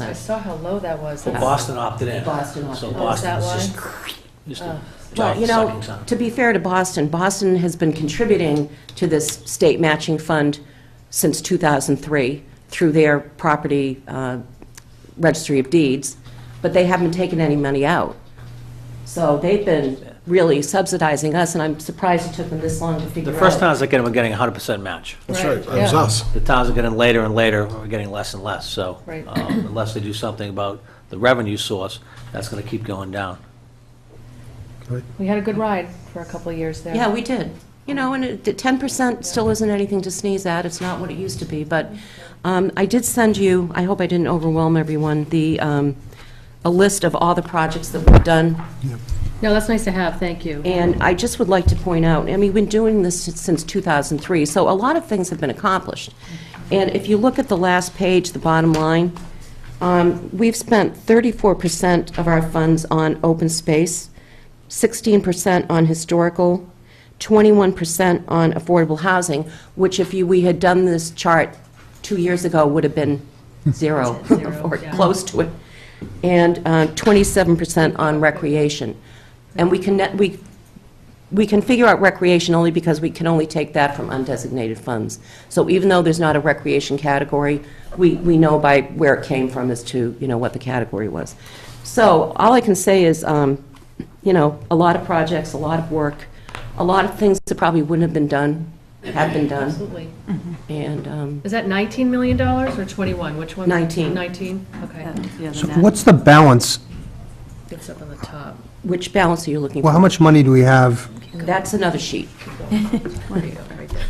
I saw how low that was. Well, Boston opted in. Uh, Boston opted So in. Oh, is that Boston's just, just Oh. a Well, you know, sucking sound. to be fair to Boston, Boston has been contributing to this state matching fund since 2003 through their property uh, registry of deeds, but they haven't taken any money out. So they've been really subsidizing us, and I'm surprised it took them this long to figure The out. first towns that get them are getting 100% match. That's right, that was yeah. us. The towns that get in later and later are getting less and less, so. Right. um, Unless they do something about the revenue source, that's going to keep going down. We had a good ride for a couple of years there. Yeah, we did. You know, and it- the 10% still isn't anything to sneeze at, it's not what it used to be, but um, I did send you, I hope I didn't overwhelm everyone, the, um, a list of all the projects that we've done, No, that's nice to have, thank you. and I just would like to point out, I mean, we've been doing this since 2003, so a lot of things have been accomplished. And if you look at the last page, the bottom line, um, we've spent 34% of our funds on open space, 16% on historical, 21% on affordable housing, which if you, we had done this chart two years ago, would have been zero, or close to it, and uh, 27% on recreation. And we can, net- we, we can figure out recreation only because we can only take that from undesignated funds. So even though there's not a recreation category, we, we know by where it came from as to, you know, what the category was. So all I can say is, um, you know, a lot of projects, a lot of work, a lot of things that probably wouldn't have been done, have been done, Absolutely. and, um, Is that $19 million or 21? Which one? Nineteen. 19, okay. So So what's the balance? It's up on the top. which balance are you looking Well, how for? much money do we have? That's another sheet. There you go, right there.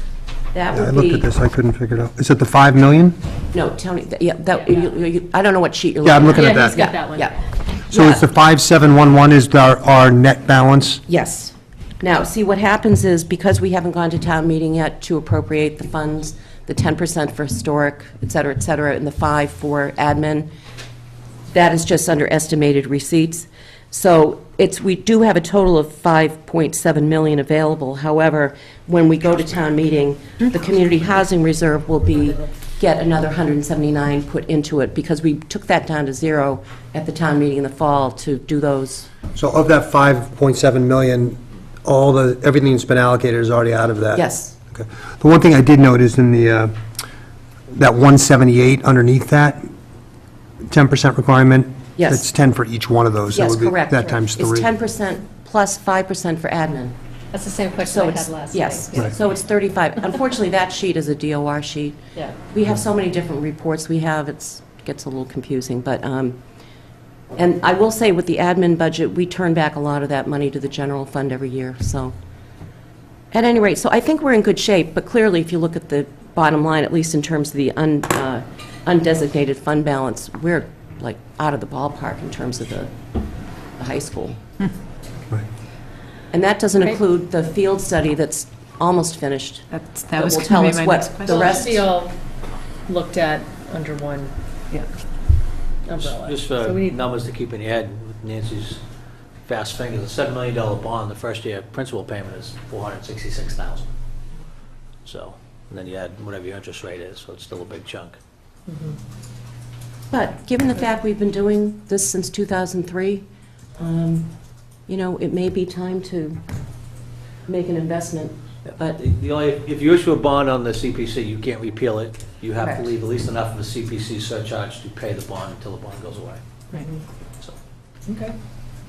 That I would looked at be, this, I couldn't figure it out. Is it the 5 million? no, Tony, th- yeah, that, you- you- I don't know what sheet you're looking Yeah, at. I'm looking at Yeah, he's that. got that one. Yeah. So it's the 5711 is our, our net balance? Yes. Now, see, what happens is, because we haven't gone to town meeting yet to appropriate the funds, the 10% for historic, et cetera, et cetera, and the 5 for admin, that is just under estimated receipts. So it's, we do have a total of 5.7 million available. However, when we go to town meeting, the community housing reserve will be, get another 179 put into it, because we took that down to zero at the town meeting in the fall to do those So of that 5.7 million, all the, everything that's been allocated is already out of that? Yes. Okay. The one thing I did note is in the, uh, that 178 underneath that, 10% requirement? Yes. That's 10 for each one of those. That Yes, would be- correct. That times It's three. 10% plus 5% for admin. That's the same question I So had it's, last night. yes, Yeah. so it's 35. Unfortunately, that sheet is a DOR sheet. Yeah. We have so many different reports we have, it's, gets a little confusing, but, um, and I will say with the admin budget, we turn back a lot of that money to the general fund every year, so. At any rate, so I think we're in good shape, but clearly, if you look at the bottom line, at least in terms of the un- uh, undesignated fund balance, we're like out of the ballpark in terms of the the high school. Right. And that doesn't Okay. include the field study that's almost finished. That's, That that was will tell gonna us be my what next the question. Well, it should rest- be all looked at under one Yeah. umbrella. Just uh, So for we need- numbers to keep in your head, with Nancy's fast fingers, a $7 million bond, the first year principal payment is 466000 So, and then you add whatever your interest rate is, so it's still a big chunk. But given the fact we've been doing this since 2003, um, you know, it may be time to make an investment. But- The- The only, if you issue a bond on the CPC, you can't repeal it. You have to Correct. leave at least enough of a CPC surcharge to pay the bond until the bond goes away. Right. So, Okay.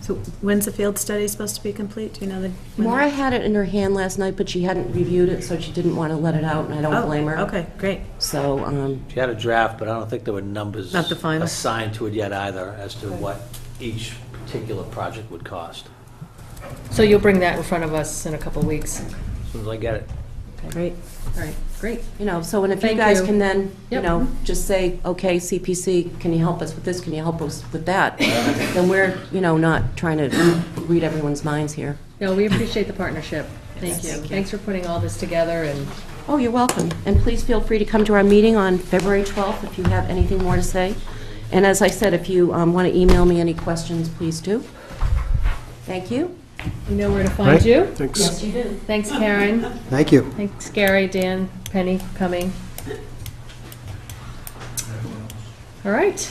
So when's the field study supposed to be complete? Do you know the? when that- Maura had it in her hand last night, but she hadn't reviewed it, so she didn't want to let it out, and I don't Oh, blame her. Okay, great. So, um, She had a draft, but I don't think there were numbers Not the final. assigned to it yet either as to what each particular project would cost. So you'll bring that in front of us in a couple of weeks. As soon as I get it. Great. All right, great. you know, so, and if you Thank guys you. can then, you Yep. know, just say, okay, CPC, can you help us with this, can you help us with that? Then we're, you know, not trying to read everyone's minds here. No, we appreciate the partnership. Thank you. Thanks for putting all this together and Oh, you're welcome. And please feel free to come to our meeting on February 12th if you have anything more to say. And as I said, if you want to email me any questions, please do. Thank you. you know where to find you. Thanks. you do. Thanks, Karen. Thank you. Thanks, Gary, Dan, Penny, for coming. All right.